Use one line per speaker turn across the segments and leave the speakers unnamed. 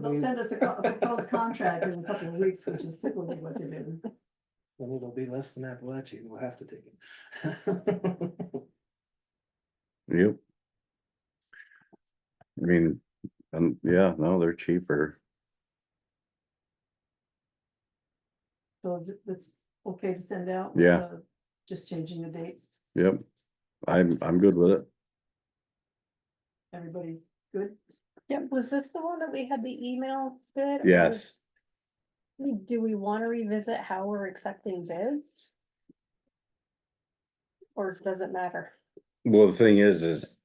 They'll send us a co- a proposed contract in a couple of weeks, which is typically what they do.
Then it'll be less than Appalachian, we'll have to take it.
Yep. I mean, um, yeah, no, they're cheaper.
So is it- it's okay to send out? with,
Yeah.
uh, Just changing the date.
Yep. I'm, I'm good with it.
Everybody's good?
Yeah, was this the one that we had the email bid? or
Yes.
was- Do we want to revisit how we're accepting bids? Or does it matter?
Well, the thing is, is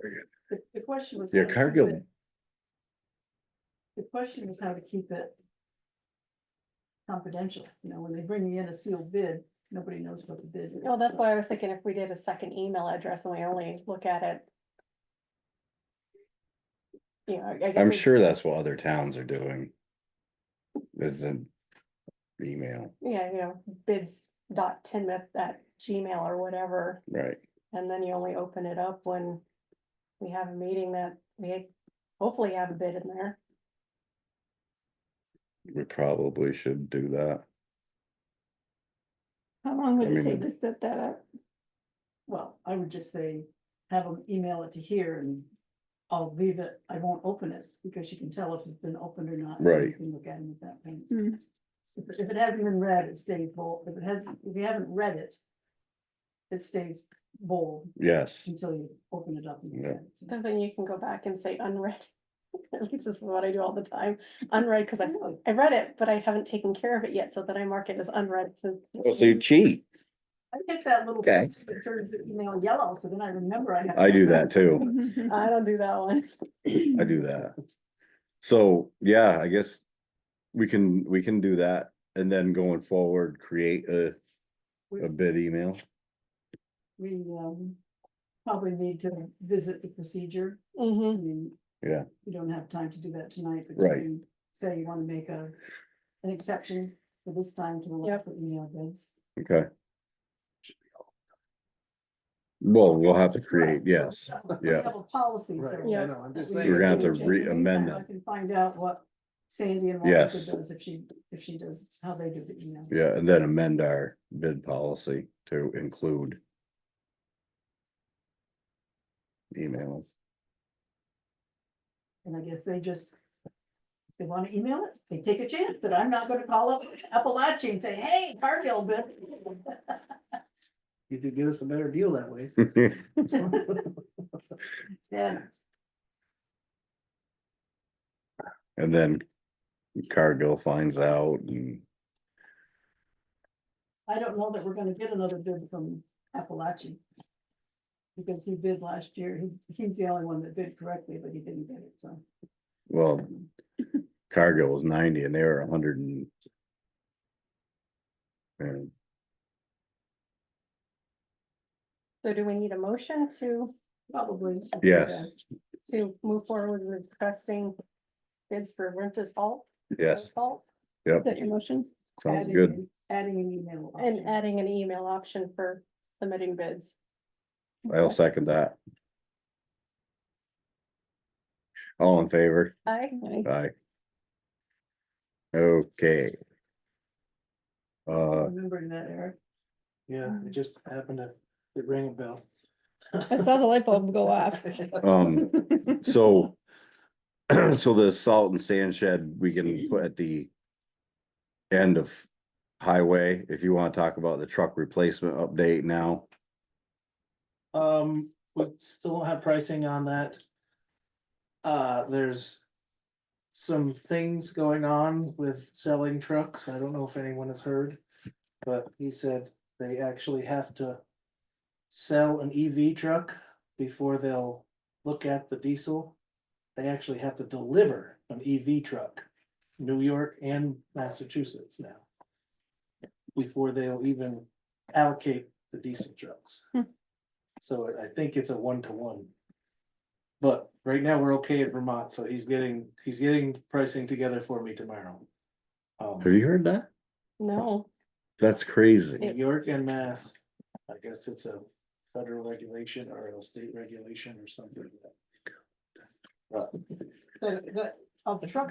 The, the question was.
your
how to keep
Cargill,
it- The question was how to keep it confidential, you know, when they bring you in a sealed bid, nobody knows what the bid is.
Well, Oh, that's why I was thinking if we did a second email address and we only look at it. You know, I- I. guess
I'm
we-
sure that's what other towns are doing. Is an email,
Yeah, you know, bids dot tinmouth at Gmail or whatever,
right?
and then you only open it up when we have a meeting that we hopefully have a bid in there.
We probably should do that.
How long would
I
it take
mean-
to set that up?
Well, I would just say, have them email it to here and I'll leave it, I won't open it, because you can tell if it's been opened or not. and you
Right.
can look at them at that point.
Hmm.
If, it- if it hasn't been read, it stays bold, if it has, if you haven't read it, it stays bold
Yes,
until you open it up. and look
Yeah.
at it. So-
So then you can go back and say unread. At least this is what I do all the time, unread, because I, s-
Really?
I read it, but I haven't taken care of it yet, so then I mark it as unread since.
Oh, so you cheat.
I get that little.
Okay.
thing That turns the email yellow, so then I remember I have.
I do that too.
I don't do that one.
I do that. So, yeah, I guess we can, we can do that and then going forward, create a, a bid email.
We, um, probably need to visit the procedure. I
Mhm.
mean.
Yeah.
You don't have time to do that tonight, but. you
Right.
can Say you wanna make a, an exception for this time to allow
Yep.
for email bids.
Okay. Well, we'll have to create, yes,
So, We
yeah.
have a policy,
Right,
so.
I know, I'm just
that we
saying.
We're gonna have
can
to
change. In the
re-amend
meantime,
that.
I can find out what Sandy and Monica
Yes.
does if she, if she does, how they do the email.
yeah, and then amend our bid policy to include. Emails,
And I guess they just. They wanna email it, they take a chance that I'm not gonna call up Appalachia and say, hey, Cargill bid.
You could get us a better deal that way.
Yeah,
and then Cargill finds out and,
I don't know that we're gonna get another bid from Appalachian. Because he bid last year, he, he's the only one that bid correctly, but he didn't get it, so.
well, Cargill was ninety and they were a hundred and. And,
So do we need a motion to,
Probably. I think
Yes.
that's-
to move forward with requesting bids for winter salt?
yes,
salt,
yep,
That your motion?
sounds
adding
good.
an- Adding an email.
And
option.
adding an email option for submitting bids.
I'll second that. All in favor?
I,
Aye. Okay. Uh,
Remembering that, Eric.
Yeah, it just happened to, it rang a bell.
uh.
I saw the light bulb go off.
um, so. So the salt and sand shed, we can put at the. End of highway, if you wanna talk about the truck replacement update now,
Um, we still don't have pricing on that. Uh, there's. Some things going on with selling trucks. I don't know if anyone has heard. But he said they actually have to. Sell an EV truck before they'll look at the diesel. They actually have to deliver an EV truck. New York and Massachusetts now. Before they'll even allocate the diesel trucks. So I- I think it's a one to one. But right now, we're okay at Vermont, so he's getting, he's getting pricing together for me tomorrow. Um,
have you heard that?
no,
That's crazy,
New York and Mass, I guess it's a federal regulation or a state regulation or something.
But, but of the truck